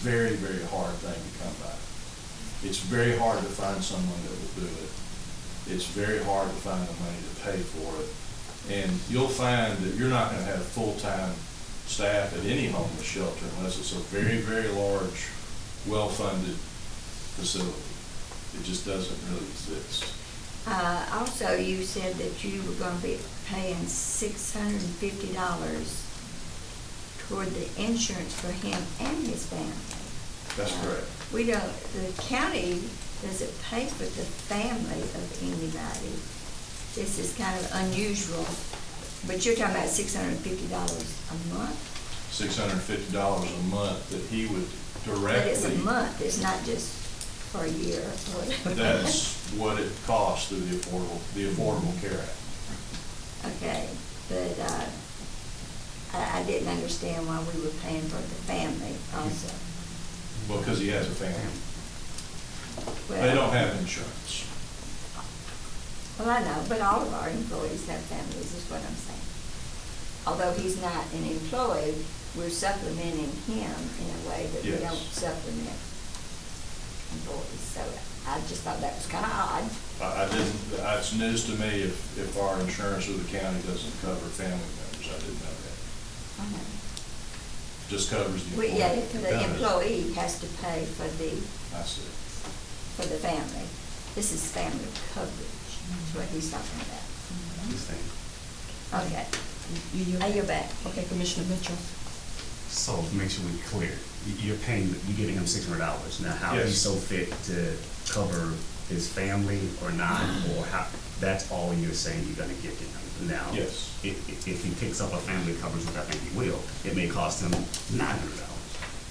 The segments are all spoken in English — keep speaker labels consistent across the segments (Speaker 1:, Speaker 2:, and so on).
Speaker 1: very, very hard thing to come by. It's very hard to find someone that will do it. It's very hard to find the money to pay for it. And you'll find that you're not gonna have full-time staff at any homeless shelter unless it's a very, very large, well-funded facility. It just doesn't really exist.
Speaker 2: Uh, also, you said that you were gonna be paying six hundred and fifty dollars toward the insurance for him and his family.
Speaker 1: That's
Speaker 2: Uh,
Speaker 1: correct.
Speaker 2: We don't, the county doesn't pay for the family of anybody. This is kind of unusual, but you're talking about six hundred and fifty dollars a month?
Speaker 1: Six hundred and fifty dollars a month that he would
Speaker 2: But it's a
Speaker 1: directly.
Speaker 2: month, it's not just for a year or whatever.
Speaker 1: That's what it costs through the Affordable, the Affordable Care Act.
Speaker 2: Okay, but, uh, I, I didn't understand why we were paying for the family also.
Speaker 1: Because he has a family. They
Speaker 2: Well-
Speaker 1: don't have insurance.
Speaker 2: Well, I know, but all of our employees have families, is what I'm saying. Although he's not an employee, we're supplementing him in a way that we
Speaker 1: Yes.
Speaker 2: don't supplement employees, so I just thought that was kinda odd.
Speaker 1: I, I didn't, it's news to me if, if our insurance with the county doesn't cover family members. I didn't know that.
Speaker 2: I know.
Speaker 1: Just covers the employee.
Speaker 2: We, yeah, the employee has to pay for the,
Speaker 1: I see.
Speaker 2: for the family. This is family coverage, is what he's talking about. Okay,
Speaker 3: Mm-hmm. You yield?
Speaker 2: I yield back.
Speaker 3: Okay, Commissioner Mitchell.
Speaker 4: So to make sure we're clear, y- you're paying, you're giving him six hundred dollars. Now, how
Speaker 1: Yes.
Speaker 4: he's so fit to cover his family or not, or how, that's all you're saying you're gonna give to him. Now,
Speaker 1: Yes.
Speaker 4: if, if- if he picks up a family coverage, which I think he will, it may cost him nine hundred dollars.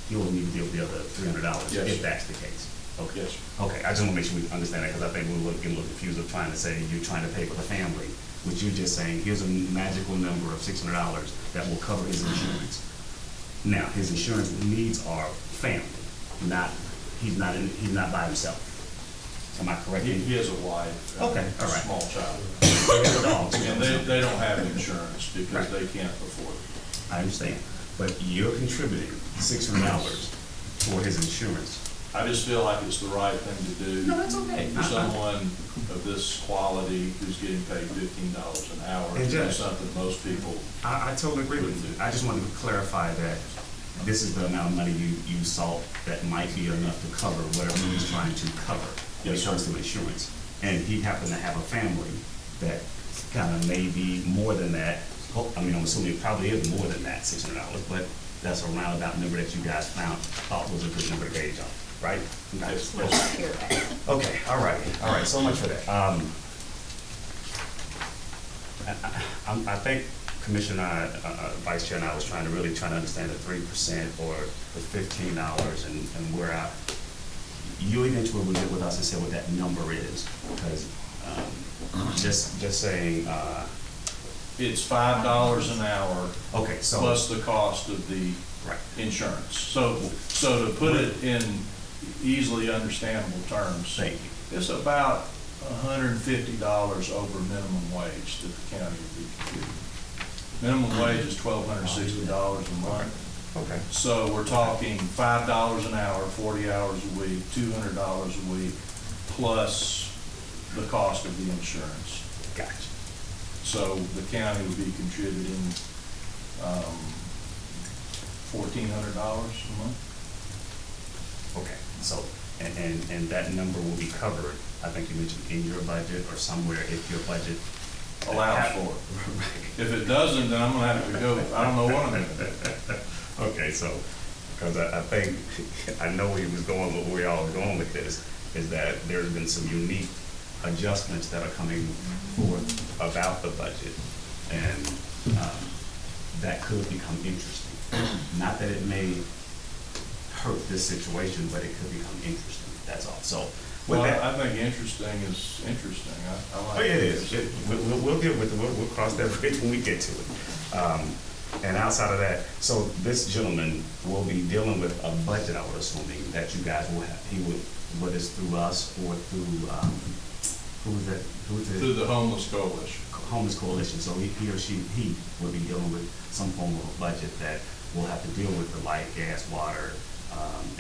Speaker 4: He'll need to deal with the other three hundred dollars
Speaker 1: Yes.
Speaker 4: if that's the case. Okay.
Speaker 1: Yes.
Speaker 4: Okay, I just wanna make sure we understand that, because I think we were getting a little confused of trying to say you're trying to pay for the family, which you're just saying, here's a magical number of six hundred dollars that will cover his insurance. Now, his insurance needs are family, not, he's not, in- he's not by himself. Am I correct?
Speaker 1: He, he has a wife. and
Speaker 4: Okay, all
Speaker 1: A
Speaker 4: right.
Speaker 1: small child.
Speaker 4: Dogs.
Speaker 1: And they, they don't have insurance because
Speaker 4: Right.
Speaker 1: they can't afford it.
Speaker 4: I understand, but you're contributing six hundred dollars for his insurance.
Speaker 1: I just feel like it's the right thing to do.
Speaker 4: No, that's okay.
Speaker 1: For
Speaker 4: I- I-
Speaker 1: someone of this quality who's getting paid fifteen dollars an hour,
Speaker 4: And
Speaker 1: to do
Speaker 4: Judge-
Speaker 1: something most people,
Speaker 4: I, I totally agree with you. I just wanted to clarify that this is the amount of money you, you saw that might be enough to cover whatever he's trying to cover when
Speaker 1: Yes,
Speaker 4: it
Speaker 1: sir.
Speaker 4: comes to insurance. And he happened to have a family that kind of may be more than that. Ho- I mean, I'm assuming it probably is more than that, six hundred dollars, but that's a roundabout number that you guys found, thought was a good number to gauge on, right?
Speaker 1: Yes.
Speaker 2: I yield back.
Speaker 4: Okay, all right, all right, so much for that. Um, I, I, I'm- I think Commissioner, and I, uh, uh, Vice Chair and I was trying to really try to understand the three percent or the fifteen dollars and, and where I, you eventually will get with us and say what that number is, because, um, just, just saying, uh,
Speaker 1: it's five dollars an hour
Speaker 4: okay, so.
Speaker 1: plus the cost of the
Speaker 4: Right.
Speaker 1: insurance. So, so to put it in easily understandable terms,
Speaker 4: Thank you.
Speaker 1: it's about hundred and fifty dollars over minimum wage that the county would be contributing. Minimum wage is twelve hundred and sixty dollars a month.
Speaker 4: Okay.
Speaker 1: So we're talking five dollars an hour, forty hours a week, two hundred dollars a week, plus the cost of the insurance.
Speaker 4: Gotcha.
Speaker 1: So the county would be contributing, um, fourteen hundred dollars a month?
Speaker 4: Okay, so, and, and, and that number will be covered, I think you mentioned in your budget or somewhere if your budget.
Speaker 1: Allows for it. If it doesn't, then I'm gonna have to go, I don't know what I'm gonna do.
Speaker 4: Okay, so, because I, I think, I know where you was going, but where y'all was going with this, is that there's been some unique adjustments that are coming forth about the budget. And, um, that could become interesting. Not that it may hurt this situation, but it could become interesting, that's all, so. with
Speaker 1: Well,
Speaker 4: that-
Speaker 1: I think interesting is interesting, I, I like.
Speaker 4: Oh, yeah, it is. It- we- We'll, we'll deal with it. We'll, we'll cross that bridge when we get to it. Um, and outside of that, so this gentleman will be dealing with a budget, I would assume, that you guys will have. He would, whether it's through us or through, um, who was that? Who was
Speaker 1: Through the homeless coalition.
Speaker 4: homeless coalition, so he, he or she, he will be dealing with some form of a budget that will have to deal with the light, gas, water, um,